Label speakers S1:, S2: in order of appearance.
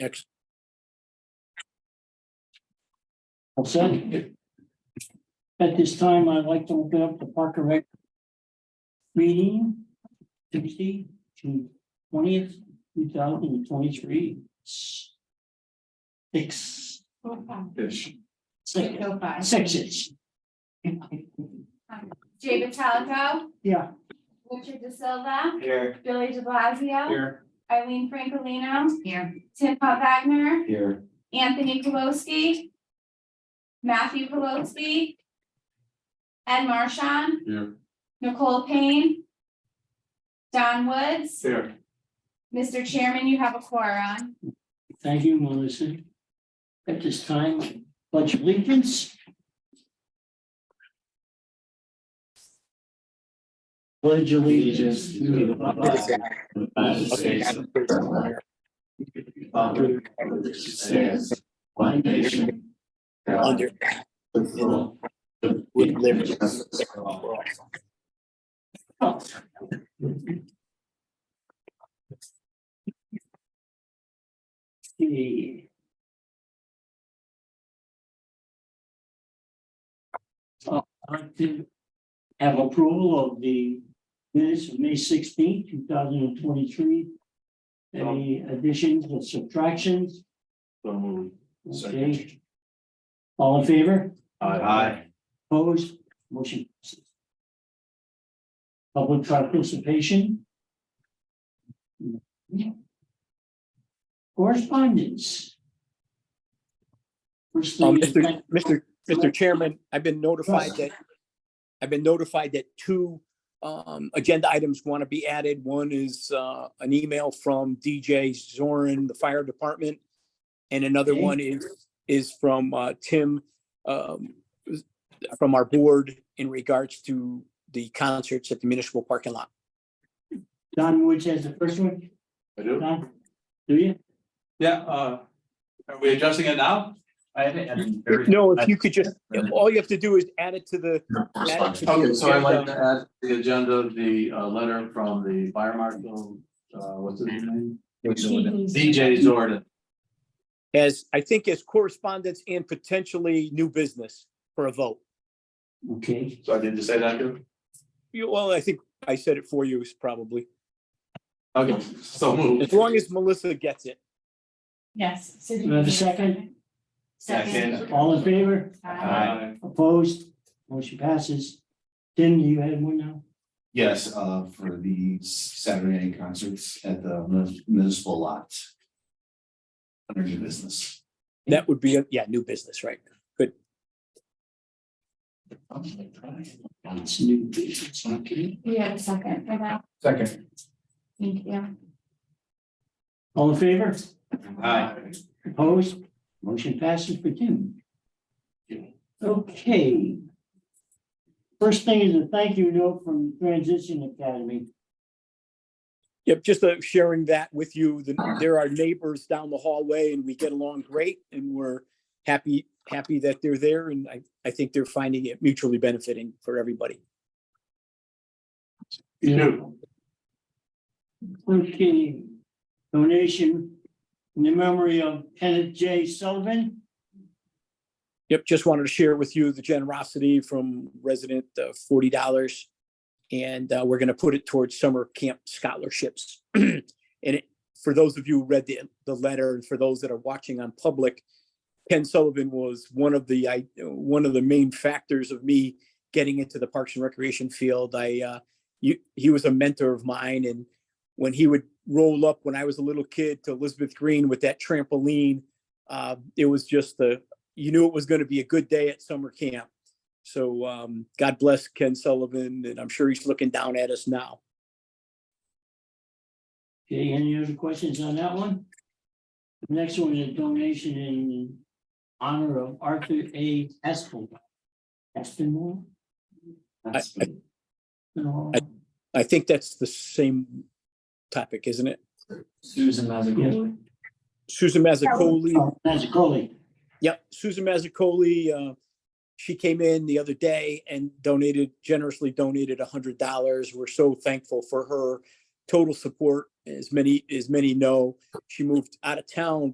S1: Next. Well said. At this time, I'd like to open up the Parker Rec. Meeting Tuesday, June twentieth, two thousand and twenty-three. Six,
S2: Ish.
S1: six, sixes.
S3: Jay Vitalico,
S1: Yeah,
S3: Richard De Silva,
S2: Here.
S3: Billy De Blasio,
S2: Here.
S3: Eileen Francolino. Here. Tim Pop Wagner,
S2: Here.
S3: Anthony Pelosi. Matthew Pelosi. Ed Marshon,
S2: Here.
S3: Nicole Payne. Don Woods,
S2: Here.
S3: Mr. Chairman, you have a quorum.
S1: thank you, Melissa. At this time, pledge allegiance. Pledge allegiance to the flag
S4: One nation. Under. With liberty.
S1: Okay. Uh, I'd like to have approval of the minutes of May sixteenth, two thousand and twenty-three. Any additions or subtractions?
S2: So moved.
S1: Okay. All in favor?
S2: Aye.
S1: Opposed? Motion. passes. Public participation. Correspondence. First
S5: Um,
S1: thing,
S5: Mr. Mr. Mr. Chairman, I've been notified that, I've been notified that two um, agenda items want to be added. One is uh, an email from DJ Zorin, the fire department. And another
S1: Okay.
S5: one is, is from uh, Tim, um, from our board in regards to the concerts at the municipal parking lot.
S1: Don Woods has the first one.
S2: I do.
S1: Don, do you?
S2: Yeah, uh, are we adjusting it now? I
S5: No, if you could just, all you have to do is add it to the, add it to the
S2: Okay, so I'd like to
S5: agenda.
S2: add to the agenda, the uh letter from the fire marshal, uh, what's his name? DJ Zordan.
S5: as, I think as correspondence and potentially new business for a vote.
S1: Okay,
S2: So I didn't just say that good?
S5: You, well, I think I said it for you is probably,
S2: Okay, so moved.
S5: as long as Melissa gets it.
S6: Yes.
S1: Do I have a second?
S2: Second.
S1: all in favor?
S2: Aye.
S1: Opposed? Motion passes. Tim, you had one now?
S4: Yes, uh, for the Saturday night concerts at the municipal lot. Under new business.
S5: That would be, a yeah, new business, right?
S1: It's new business, okay.
S3: You have a second for that.
S2: Second.
S3: Thank you.
S1: All in favor?
S2: Aye.
S1: Opposed? Motion passes for Tim. Okay. First thing is a thank you note from Transition Academy.
S5: Yep, just uh, sharing that with you. The- There are neighbors down the hallway and we get along great and we're happy, happy that they're there and I, I think they're finding it mutually benefiting for everybody.
S2: You.
S1: Okay. Donation in the memory of Kenneth J. Sullivan.
S5: Yep, just wanted to share with you the generosity from resident, uh, forty dollars. And, uh, we're gonna put it towards summer camp scholarships. And it, for those of you who read the, the letter, and for those that are watching on public, Ken Sullivan was one of the, I, one of the main factors of me getting into the Parks and Recreation field. I, uh, you, he was a mentor of mine and when he would roll up when I was a little kid to Elizabeth Green with that trampoline, uh, it was just the, you knew it was going to be a good day at summer camp. So um, God bless Ken Sullivan, and I'm sure he's looking down at us now.
S1: Okay, any other questions on that one? The Next one is donation in honor of Arthur A. Espel. Espel?
S5: I, I,
S1: No.
S5: I think that's the same topic, isn't it?
S4: Susan Mazzagul.
S5: Susan Mazzacoli.
S1: Oh, That's a colleague.
S5: Yep, Susan Mazzacoli. Uh, she came in the other day and donated generously donated a hundred dollars. We're so thankful for her total support. As many as many know, she moved out of town,